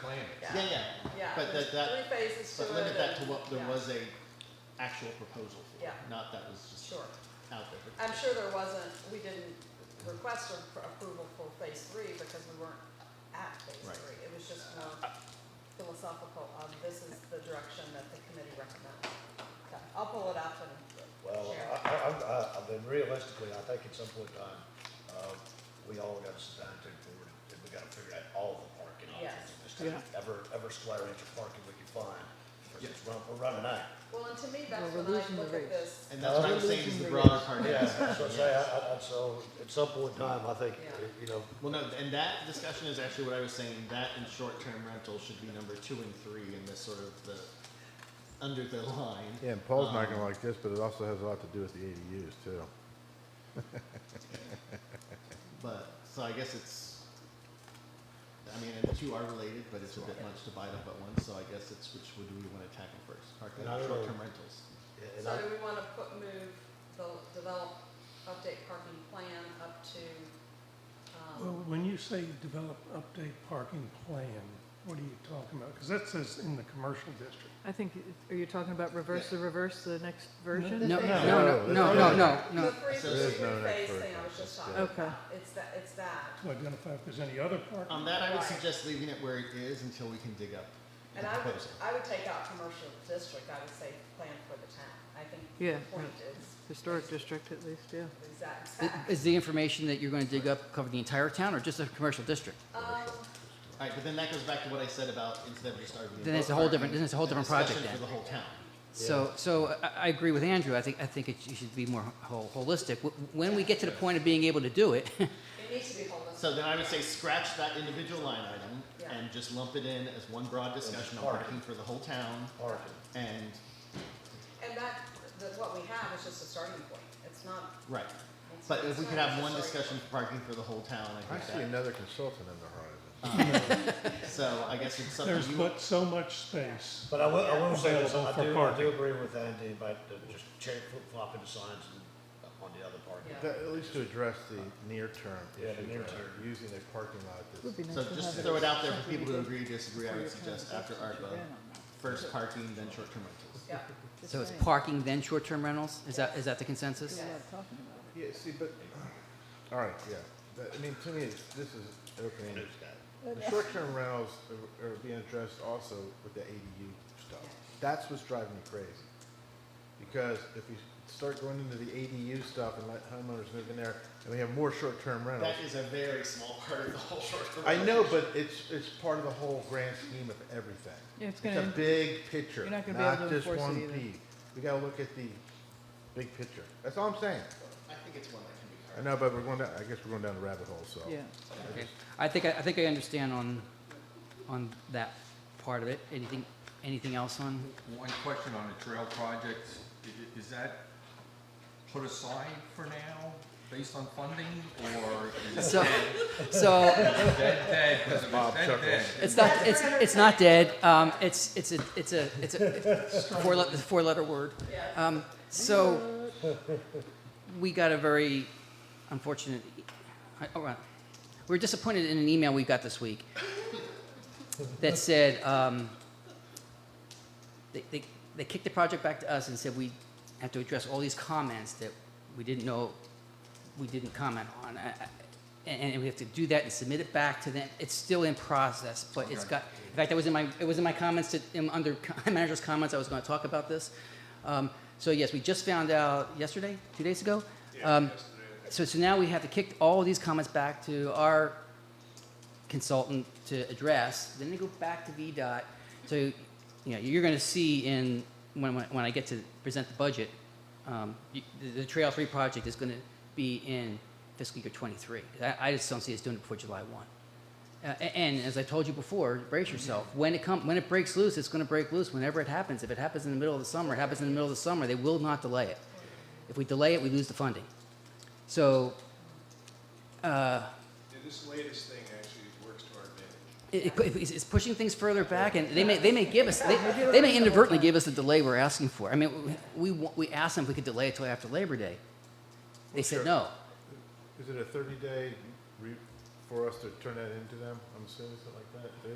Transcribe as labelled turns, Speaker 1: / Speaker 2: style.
Speaker 1: Yeah, yeah.
Speaker 2: Yeah,
Speaker 1: But
Speaker 2: there's
Speaker 1: that, that,
Speaker 2: three phases to it.
Speaker 1: but limit that to
Speaker 2: and-
Speaker 1: what there
Speaker 2: yeah,
Speaker 1: was a actual proposal for,
Speaker 2: Yeah.
Speaker 1: not that was just
Speaker 2: Sure.
Speaker 1: out there.
Speaker 2: I'm sure there wasn't, we didn't request a- for approval for phase three because we weren't at phase
Speaker 1: Right.
Speaker 2: three. It was just more philosophical, um, this is the direction that the committee recommends. Okay, I'll pull it up and
Speaker 3: Well,
Speaker 2: share.
Speaker 3: I, I, I'm- I, I've been realistically, I think at some point in time, uh, we all got to sit down and take forward, and we gotta figure out all the parking options in this town.
Speaker 1: Yeah.
Speaker 3: Ever, ever square inch of parking we can find, because
Speaker 1: Yeah.
Speaker 3: it's run, we're running out.
Speaker 2: Well, and to me, that's
Speaker 4: Well, we're
Speaker 2: when I
Speaker 4: losing the
Speaker 2: look at
Speaker 4: race.
Speaker 2: this,
Speaker 1: And that's what I'm
Speaker 3: Uh,
Speaker 1: saying is the
Speaker 4: losing
Speaker 1: broader
Speaker 4: the-
Speaker 1: part of
Speaker 3: Yeah,
Speaker 1: it.
Speaker 3: so say, uh, I, I, I- so, at some point in time, I think,
Speaker 2: Yeah.
Speaker 3: you know,
Speaker 1: Well, no, and that discussion is actually what I was saying, that and short-term rental should be number two and three in this sort of the, under the line.
Speaker 5: Yeah, and Paul's not
Speaker 1: Um,
Speaker 5: gonna like this, but it also has a lot to do with the ADUs too.
Speaker 1: But, so I guess it's, I mean, and the two are related, but it's a bit much to bite up at once, so I guess it's which would we wanna tackle first? Parking,
Speaker 3: And I don't know.
Speaker 1: short-term rentals.
Speaker 3: and
Speaker 2: so
Speaker 3: I,
Speaker 2: do we wanna put, move the, develop, update parking plan up to,
Speaker 6: Well,
Speaker 2: um,
Speaker 6: when you say develop update parking plan, what are you talking about? Because that says in the commercial district.
Speaker 4: I think, are you talking about reverse the reverse, the next version?
Speaker 7: No,
Speaker 2: No,
Speaker 5: no,
Speaker 7: no, no,
Speaker 5: no.
Speaker 7: no, no, no,
Speaker 2: the
Speaker 7: no.
Speaker 2: three,
Speaker 1: There
Speaker 2: the
Speaker 1: is
Speaker 2: three
Speaker 5: no
Speaker 2: phase
Speaker 5: next
Speaker 2: thing I was
Speaker 5: version.
Speaker 2: just
Speaker 5: Yeah.
Speaker 2: talking
Speaker 4: Okay.
Speaker 2: about, it's that, it's that.
Speaker 6: To identify if there's any other parking.
Speaker 1: On that, I would
Speaker 2: Right.
Speaker 1: suggest leaving it where it is until we can dig up the
Speaker 2: And I would,
Speaker 1: proposal.
Speaker 2: I would take out commercial district, I would say plan for the town. I think
Speaker 4: Yeah,
Speaker 2: the point is
Speaker 4: Historic district at least, yeah.
Speaker 2: the exact,
Speaker 7: Is the information that you're going to dig up cover the entire town or just a commercial district?
Speaker 2: um,
Speaker 1: All right, but then that goes back to what I said about instead of just arguing.
Speaker 7: Then it's
Speaker 1: about
Speaker 7: a whole different-
Speaker 1: parking,
Speaker 7: then it's a whole different project
Speaker 1: discussion For
Speaker 7: then.
Speaker 1: the whole town.
Speaker 7: So, so I, I agree with Andrew. I think, I think it sh- you should be more ho- holistic. Wh- When we get to the point of being able to do it,
Speaker 2: it needs to be holistic.
Speaker 1: So then I would say scratch that individual line item
Speaker 2: Yeah.
Speaker 1: and just lump it in as one broad discussion on
Speaker 3: parking.
Speaker 1: parking for the whole town.
Speaker 3: parking,
Speaker 1: And,
Speaker 2: And that, that what we have is just a starting point. It's not,
Speaker 1: right,
Speaker 2: it's.
Speaker 1: but if
Speaker 2: it's
Speaker 1: we
Speaker 2: not
Speaker 1: could
Speaker 2: just
Speaker 1: have
Speaker 2: a
Speaker 1: one
Speaker 2: starting
Speaker 1: discussion for parking for the whole town, I
Speaker 5: I see
Speaker 1: think
Speaker 5: another consultant in the horizon.
Speaker 1: that, so I guess it's something
Speaker 6: There's
Speaker 1: you.
Speaker 6: but so much space.
Speaker 3: but I will, I will say this, I
Speaker 6: Available for
Speaker 3: do, I do
Speaker 6: parking.
Speaker 3: agree with Andy about the, just cherry flip flopping the signs and on the other parking.
Speaker 2: Yeah.
Speaker 5: That- At least to address the near-term
Speaker 3: Yeah, the
Speaker 5: issue,
Speaker 3: near
Speaker 5: uh,
Speaker 3: term.
Speaker 5: using a parking lot
Speaker 4: Would
Speaker 5: that's,
Speaker 4: be nice
Speaker 1: So
Speaker 4: to
Speaker 1: just
Speaker 4: have
Speaker 1: throw it out there for people who
Speaker 4: something
Speaker 1: agree, disagree, I
Speaker 4: for your
Speaker 1: would suggest after ARPA,
Speaker 4: conversation to ran on that.
Speaker 1: first parking, then short-term rentals.
Speaker 2: Yeah,
Speaker 4: Just
Speaker 7: so it's
Speaker 4: saying.
Speaker 7: parking then short-term rentals? Is that, is that the consensus?
Speaker 4: Yeah, I'm talking about.
Speaker 5: yeah, see, but, all right, yeah. But, I mean, to me, it's- this is open-ended. The short-term rentals are- are being addressed also with the ADU stuff. That's what's driving me crazy. Because if we start going into the ADU stuff and let homeowners move in there, and we have more short-term rentals.
Speaker 1: That is a very small part of the whole short-term.
Speaker 5: I
Speaker 1: rental.
Speaker 5: know, but it's, it's part of the whole grand scheme of everything.
Speaker 4: Yeah, it's gonna-
Speaker 5: a big picture,
Speaker 4: you're
Speaker 5: not
Speaker 4: not gonna be able to
Speaker 5: just
Speaker 4: enforce it
Speaker 5: one
Speaker 4: either.
Speaker 5: piece. We gotta look at the big picture. That's all I'm saying.
Speaker 1: I think it's one that can be covered.
Speaker 5: I know, but we're going down, I guess we're going down the rabbit hole, so.
Speaker 4: Yeah.
Speaker 7: Okay. I think, I I think I understand on, on that part of it. Anything, anything else on?
Speaker 8: One question on the trail projects, I- i- is that put aside for now, based on funding, or is it
Speaker 7: So, so
Speaker 8: dead, dead, because if it's dead, dead,
Speaker 7: It's not. It's it's not dead. Um, it's it's a it's a it's a four le- four letter word. Um, so we got a very unfortunate. I- oh, right. We're disappointed in an email we got this week that said um, they, they they kicked the project back to us and said we have to address all these comments that we didn't know we didn't comment on. I- I- And, and we have to do that and submit it back to them. It's still in process, but it's got, in fact, that was in my, it was in my comments to, in, under co- manager's comments, I was gonna talk about this. Um, so yes, we just found out yesterday, two days ago? Um, So, so now we have to kick all of these comments back to our consultant to address, then they go back to VDOT. So, you know, you're gonna see in, when, when when I get to present the budget, um, you- the, the Trail Three project is gonna be in fiscal year twenty-three. I, I just don't see us doing it before July one. Uh, a- and as I told you before, brace yourself. When it come, when it breaks loose, it's gonna break loose whenever it happens. If it happens in the middle of the summer, it happens in the middle of the summer, they will not delay it. If we delay it, we lose the funding. So, uh,
Speaker 9: Yeah, this latest thing actually works to our advantage.
Speaker 7: It, it, pu- it's- it's pushing things further back, and they may, they may give us, they, they may inadvertently give us the delay we're asking for. I mean, we, we wa- we asked them if we could delay it till after Labor Day. They said no.
Speaker 5: Is it a thirty day re, for us to turn that into them? I'm assuming something like that? They-